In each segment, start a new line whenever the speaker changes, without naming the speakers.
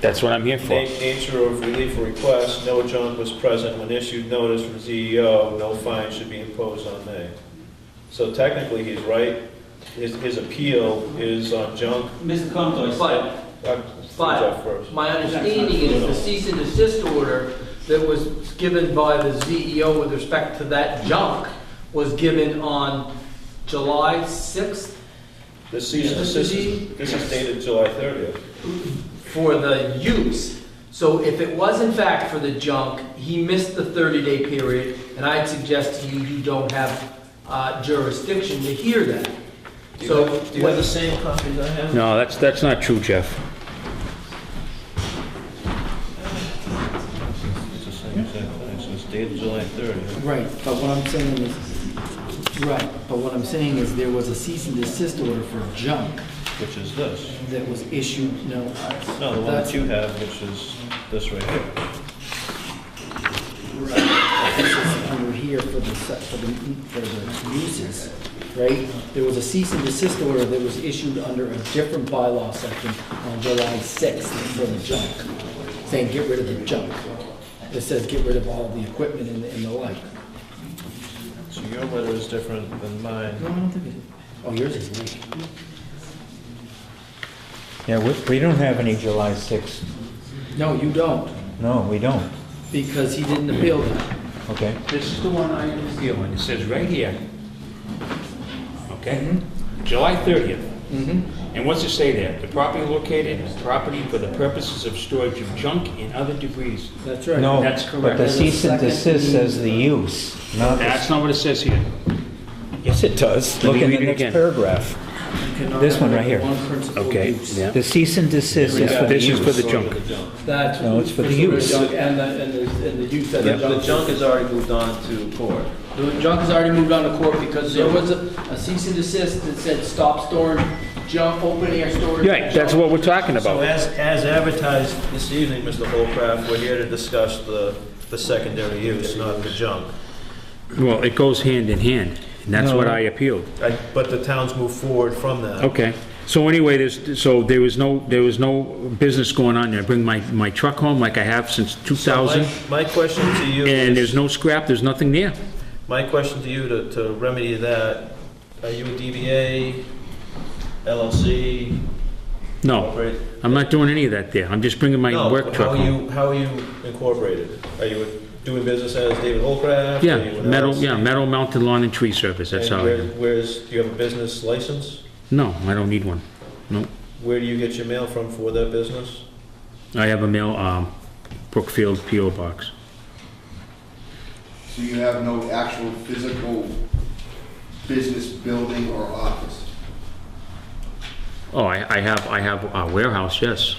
That's what I'm here for.
Na- Nature of relief request, no junk was present when issued notice from CEO, no fine should be imposed on May. So technically, he's right, his, his appeal is on junk.
Mr. Conto, I said,
But
Uh,
But-
Jeff first.
my understanding is the cease and desist order that was given by the CEO with respect to that junk was given on July 6th
This season, this is, this is dated July thirtieth.
for the use. So if it was in fact for the junk, he missed the 30-day period, and I'd suggest to you, you don't have uh, jurisdiction to hear that. So whether
same copies I have?
No, that's, that's not true, Jeff.
It's the same exact thing, so it's dated July 30th.
Right, but what I'm saying is, right, but what I'm saying is there was a cease and desist order for junk
Which is this.
that was issued, no.
No, the one that you have, which is this right here.
This is under here for the, se- for the, for the uses, right? There was a cease and desist order that was issued under a different bylaw section on July 6th for the junk, saying get rid of the junk. It says get rid of all the equipment and the- and the like.
So your letter is different than mine.
No, I don't think it is. Oh, yours is me.
Yeah, we, we don't have any July 6th.
No, you don't,
No, we don't.
because he didn't appeal that.
Okay.
This is the one I am dealing, it says right here. Okay? July 30th. And what's it say there? The property located is property for the purposes of storage of junk and other debris.
That's right.
No,
That's
but
correct.
the
There's
a
cease and
second
desist says the
means
use, not the...
That's not what it says here.
Yes, it does.
Let
Look
me
in
read
the
it
next
again.
paragraph.
cannot
This one
have
right here.
One principal
Okay,
use.
yeah.
The cease and desist is for the
This is for
use.
the junk.
That's
No, it's for the
sort of
use.
junk And the, and the, and the use of the
The
junk.
junk has already moved on to court.
The junk has already moved on to court because there was a a cease and desist that said stop storing junk, open air storage.
Right, that's what we're talking
So
about.
as, as advertised this evening, Mr. Holcraft, we're here to discuss the, the secondary use, not the junk.
Well, it goes hand in hand, and that's what
No.
I appealed.
I- But the town's moved forward from that.
Okay, so anyway, there's, so there was no, there was no business going on there. I bring my, my truck home like I have since
So
2000,
My my question to you
and there's
is,
no scrap, there's nothing there.
my question to you to, to remedy that, are you a DBA, LLC?
No,
corporate?
I'm not doing any of that there. I'm just bringing my
No,
work
how
truck
are
home.
you, how are you incorporated? Are you doing business as David Holcraft?
Yeah,
Are you an
metal,
LLC?
yeah, metal mounted lawn and tree service, that's
And
all I
where-
am.
Where's, do you have a business license?
No, I don't need one. No,
Where do you get your mail from for that business?
I have a mail, um, Brookfield PO box.
So you have no actual physical business building or office?
Oh, I, I have, I have a warehouse, yes.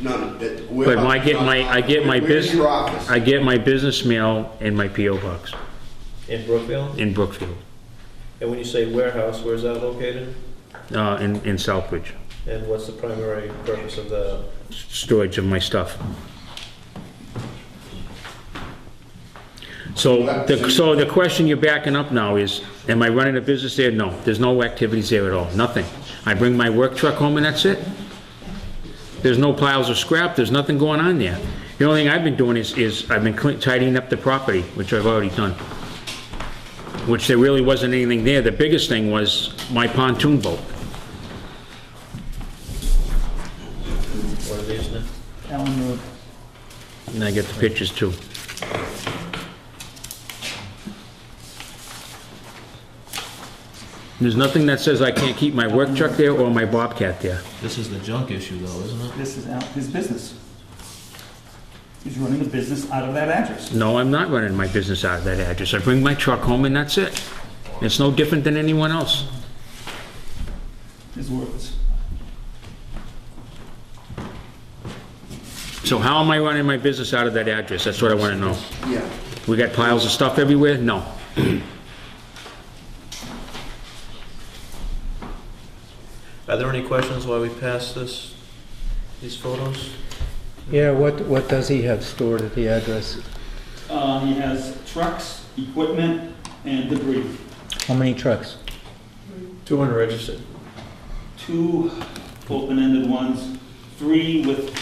None, that.
But I get my, I get my
Where's your
business,
office?
I get my business mail in my PO box
In Brookfield?
in Brookfield,
And when you say warehouse, where's that located?
uh, in, in Southbridge.
And what's the primary purpose of the,
Storage of my stuff. So, the, so the question you're backing up now is, am I running a business there? No, there's no activities there at all, nothing. I bring my work truck home and that's it. There's no piles of scrap, there's nothing going on there. The only thing I've been doing is, is I've been clean- tidying up the property, which I've already done. Which there really wasn't anything there. The biggest thing was my pontoon boat.
what are these now?
Ellen Road.
And I get the pictures too. There's nothing that says I can't keep my work truck there or my Bobcat there.
This is the junk issue though, isn't it?
This is out his business. He's running a business out of that address.
No, I'm not running my business out of that address. I bring my truck home and that's it. It's no different than anyone else.
His words.
So how am I running my business out of that address? That's what I want to know.
Yeah.
We got piles of stuff everywhere? No.
Are there any questions while we pass this, these photos?
Yeah, what, what does he have stored at the address?
Um, he has trucks, equipment, and debris.
How many trucks?
Two unregistered.
Two open-ended ones, three with